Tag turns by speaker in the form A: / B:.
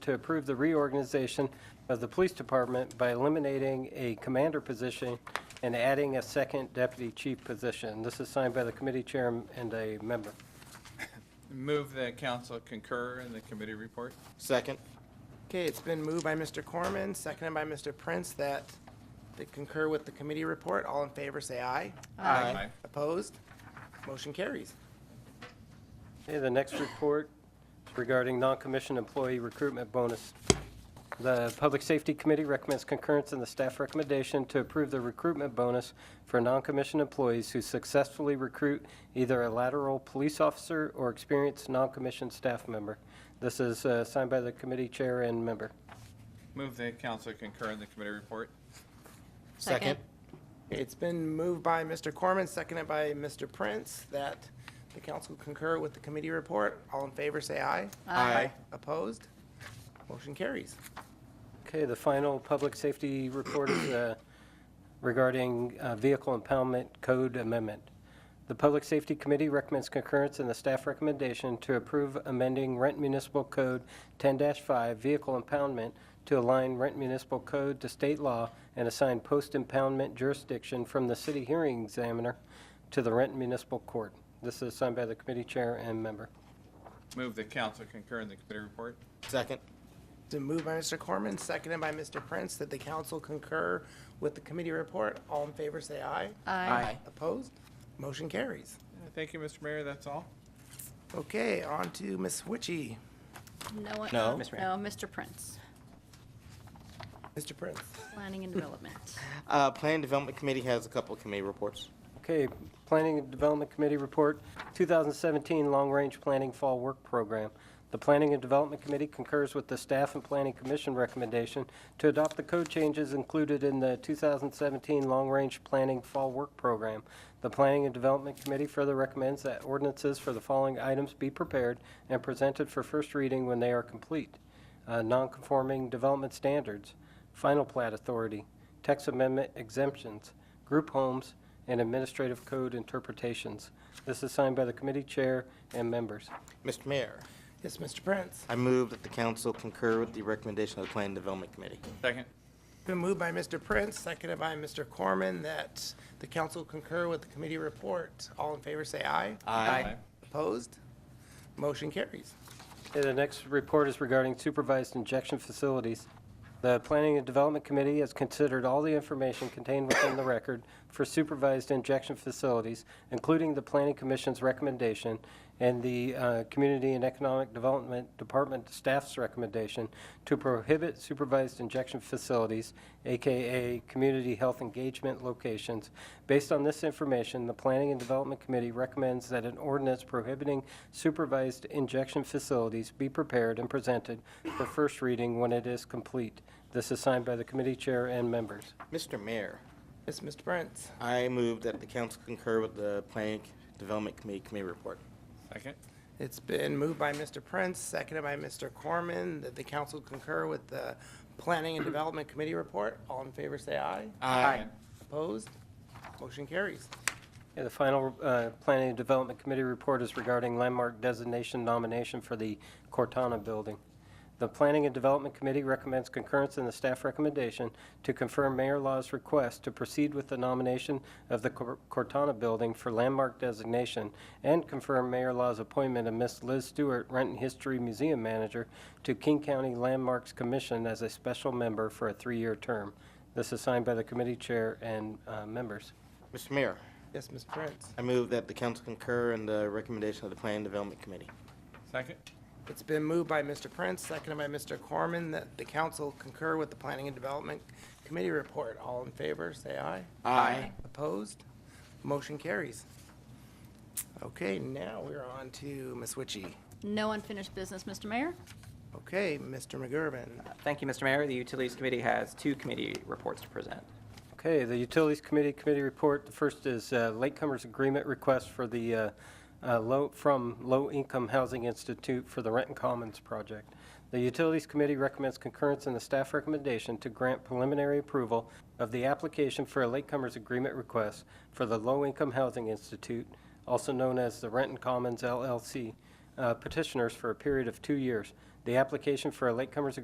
A: to approve the reorganization of the police department by eliminating a commander position and adding a second deputy chief position. This is signed by the committee chair and a member.
B: Move that council concur in the committee report.
C: Second.
D: Okay, it's been moved by Mr. Corman, seconded by Mr. Prince, that they concur with the committee report. All in favor, say aye.
B: Aye.
D: Opposed? Motion carries.
A: Okay, the next report regarding non-commissioned employee recruitment bonus. The Public Safety Committee recommends concurrence in the staff recommendation to approve the recruitment bonus for non-commissioned employees who successfully recruit either a lateral police officer or experienced non-commissioned staff member. This is uh, signed by the committee chair and member.
B: Move that council concur in the committee report.
C: Second.
D: It's been moved by Mr. Corman, seconded by Mr. Prince, that the council concur with the committee report. All in favor, say aye.
C: Aye.
D: Opposed? Motion carries.
A: Okay, the final public safety report is uh, regarding uh, vehicle impoundment code amendment. The Public Safety Committee recommends concurrence in the staff recommendation to approve amending Rent Municipal Code 10-5 Vehicle Impoundment to align Rent Municipal Code to state law and assign post-impoundment jurisdiction from the city hearing examiner to the Rent Municipal Court. This is signed by the committee chair and member.
B: Move that council concur in the committee report.
C: Second.
D: It's been moved by Mr. Corman, seconded by Mr. Prince, that the council concur with the committee report. All in favor, say aye.
C: Aye.
D: Opposed? Motion carries.
B: Uh, Thank you, Mr. Mayor, that's all.
D: Okay, on to Ms. Witchy.
E: No, one-
C: No.
E: no,
C: Ms.
E: Mr. Prince,
D: Mr. Prince.
E: Planning and Development.
C: Uh, Plan Development Committee has a couple of committee reports.
A: Okay, Planning and Development Committee Report, 2017 Long Range Planning Fall Work Program. The Planning and Development Committee concurs with the Staff and Planning Commission recommendation to adopt the code changes included in the 2017 Long Range Planning Fall Work Program. The Planning and Development Committee further recommends that ordinances for the following items be prepared and presented for first reading when they are complete. Uh, Non-conforming development standards, final plat authority, text amendment exemptions, group homes, and administrative code interpretations. This is signed by the committee chair and members.
C: Mr. Mayor,
D: Yes, Mr. Prince.
C: I move that the council concur with the recommendation of the Plan Development Committee.
B: Second.
D: Been moved by Mr. Prince, seconded by Mr. Corman, that the council concur with the committee report. All in favor, say aye.
C: Aye.
D: Opposed? Motion carries.
A: Okay, The next report is regarding supervised injection facilities. The Planning and Development Committee has considered all the information contained within the record for supervised injection facilities, including the Planning Commission's recommendation and the uh, Community and Economic Development Department staff's recommendation to prohibit supervised injection facilities, AKA community health engagement locations. Based on this information, the Planning and Development Committee recommends that an ordinance prohibiting supervised injection facilities be prepared and presented for first reading when it is complete. This is signed by the committee chair and members.
C: Mr. Mayor,
D: Yes, Mr. Prince.
C: I move that the council concur with the Planning Development Committee committee report.
B: Second.
D: It's been moved by Mr. Prince, seconded by Mr. Corman, that the council concur with the Planning and Development Committee report. All in favor, say aye.
C: Aye.
D: Opposed? Motion carries.
A: And the final uh, Planning and Development Committee report is regarding landmark designation nomination for the Cortana Building. The Planning and Development Committee recommends concurrence in the staff recommendation to confirm Mayor Law's request to proceed with the nomination of the Cor- Cortana Building for landmark designation and confirm Mayor Law's appointment of Ms. Liz Stewart, Renton History Museum Manager, to King County Landmarks Commission as a special member for a three-year term. This is signed by the committee chair and uh, members.
C: Mr. Mayor,
D: Yes, Mr. Prince.
C: I move that the council concur in the recommendation of the Plan Development Committee.
B: Second.
D: It's been moved by Mr. Prince, seconded by Mr. Corman, that the council concur with the Planning and Development Committee report. All in favor, say aye.
C: Aye.
D: Opposed? Motion carries. Okay, now we're on to Ms. Witchy.
E: No unfinished business, Mr. Mayor.
D: Okay, Mr. McGurven.
F: Thank you, Mr. Mayor. The Utilities Committee has two committee reports to present.
A: Okay, the Utilities Committee Committee Report, the first is uh, Latecomers Agreement Request for the, uh, uh, low, from Low Income Housing Institute for the Renton Commons Project. The Utilities Committee recommends concurrence in the staff recommendation to grant preliminary approval of the application for a Latecomers Agreement Request for the Low Income Housing Institute, also known as the Renton Commons LLC, uh, petitioners for a period of two years. the application for a latecomers